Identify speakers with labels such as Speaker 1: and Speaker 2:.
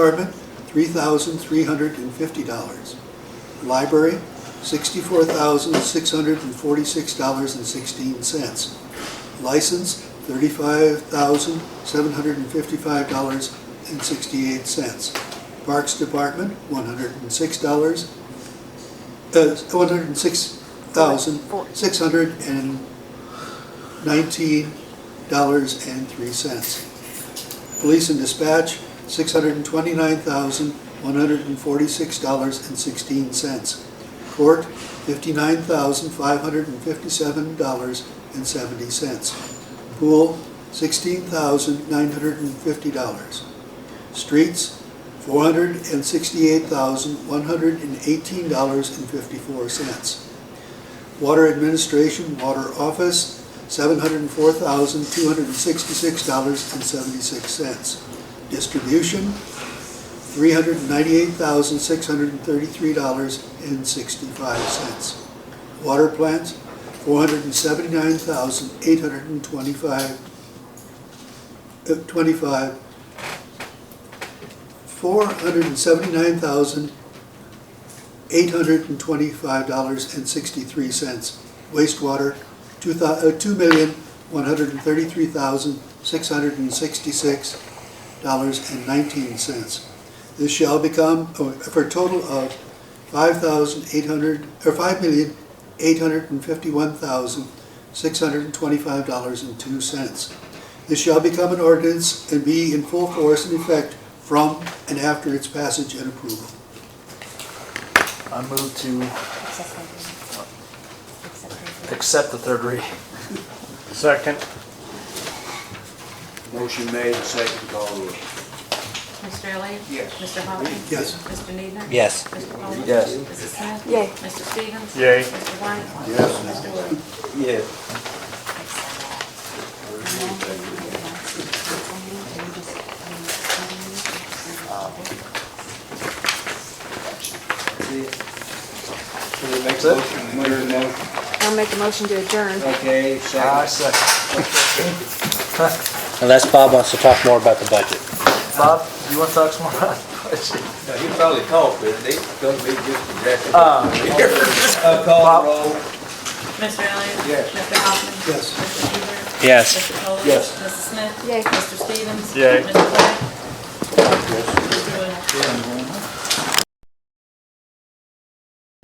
Speaker 1: Department, three thousand three hundred and fifty dollars. Library, sixty-four thousand six hundred and forty-six dollars and sixteen cents. License, thirty-five thousand seven hundred and fifty-five dollars and sixty-eight cents. Parks Department, one hundred and six dollars, uh, one hundred and six thousand six hundred and nineteen dollars and three cents. Police and dispatch, six hundred and twenty-nine thousand, one hundred and forty-six dollars and sixteen cents. Court, fifty-nine thousand, five hundred and fifty-seven dollars and seventy cents. Pool, sixteen thousand, nine hundred and fifty dollars. Streets, four hundred and sixty-eight thousand, one hundred and eighteen dollars and fifty-four cents. Water Administration, Water Office, seven hundred and four thousand, two hundred and sixty-six dollars and seventy-six cents. Distribution, three hundred and ninety-eight thousand, six hundred and thirty-three dollars and sixty-five cents. Water plants, four hundred and seventy-nine thousand, eight hundred and twenty-five, uh, twenty-five, four hundred and seventy-nine thousand, eight hundred and twenty-five dollars and sixty-three cents. Wastewater, two thou, uh, two million, one hundred and thirty-three thousand, six hundred and sixty-six dollars and nineteen cents. This shall become, oh, for a total of five thousand, eight hundred, or five million, eight hundred and fifty-one thousand, six hundred and twenty-five dollars and two cents. This shall become an ordinance and be in full force and effect from and after its passage and approval.
Speaker 2: I move to
Speaker 3: Accept that. Accept that.
Speaker 2: accept the third reading.
Speaker 4: Second.
Speaker 5: Motion made, second call the roll.
Speaker 6: Mr. Elliott?
Speaker 5: Yes.
Speaker 6: Mr. Hopkins?
Speaker 1: Yes.
Speaker 6: Mr. Needham?
Speaker 2: Yes.
Speaker 6: Mr. Coleman?
Speaker 2: Yes.
Speaker 6: Mrs. Smith?
Speaker 3: Yay.
Speaker 6: Mr. Stevens?
Speaker 4: Yay.
Speaker 6: Mr. White?
Speaker 5: Yes.
Speaker 6: Mr. Wood?
Speaker 2: Yeah.
Speaker 5: Somebody make a
Speaker 2: That's
Speaker 5: motion, make a motion.
Speaker 3: I'll make a motion to adjourn.
Speaker 5: Okay,
Speaker 2: I
Speaker 5: second.
Speaker 2: second.
Speaker 7: Unless Bob wants to talk more about the budget.
Speaker 2: Bob, you want to talk some more about the
Speaker 8: Now, he probably called, but they gonna be just addressing.
Speaker 5: Uh, Call the roll.
Speaker 6: Mr. Elliott?
Speaker 5: Yes.
Speaker 6: Mr. Hopkins?
Speaker 1: Yes.
Speaker 6: Mr. Huber?
Speaker 7: Yes.
Speaker 6: Mr. Coleman?
Speaker 5: Yes.
Speaker 6: Mrs. Smith?
Speaker 3: Yay.
Speaker 6: Mr. Stevens?
Speaker 4: Yay.
Speaker 6: Mr. White? Mr. Wood?